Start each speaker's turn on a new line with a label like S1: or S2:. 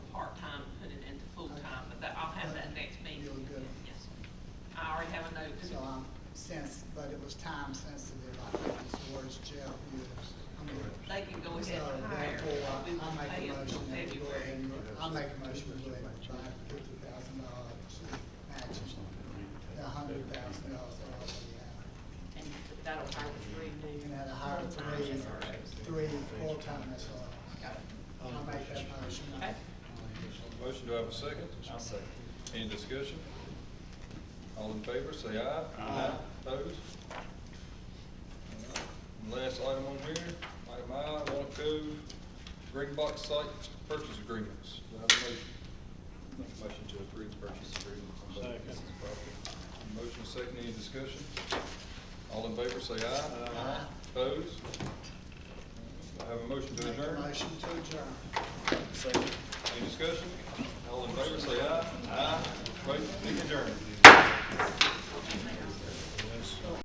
S1: was time sensitive, I think is the words Jeff used. I mean,
S2: They can go
S1: So
S2: ahead and hire.
S1: therefore,
S2: We will
S1: I
S2: pay
S1: make a
S2: them till
S1: motion that we go ahead
S2: February.
S1: and, I make a motion to go ahead and buy fifty thousand dollars matches, the hundred thousand dollars that already have.
S3: And that'll hire three new.
S1: You can add a higher
S3: full-time
S1: three,
S3: SROs.
S1: three full-time SROs.
S3: Got it.
S1: I'll make that motion.
S3: Okay.
S4: Motion, do I have a 2nd second. Any discussion? All in favor, say aye. Aye. Opposed? All right. And Last item on here, item I, Walnut Cove, Green Box Site Purchase Agreements. Do I have a motion? Make a motion to approve the purchase agreement. Second. Motion second, any discussion? All in favor, say aye. Aye. Opposed? Do I have a motion to
S1: Make
S4: adjourn?
S1: a motion to adjourn.
S4: Any discussion? All in favor, say aye. Aye. Wait, meeting adjourned.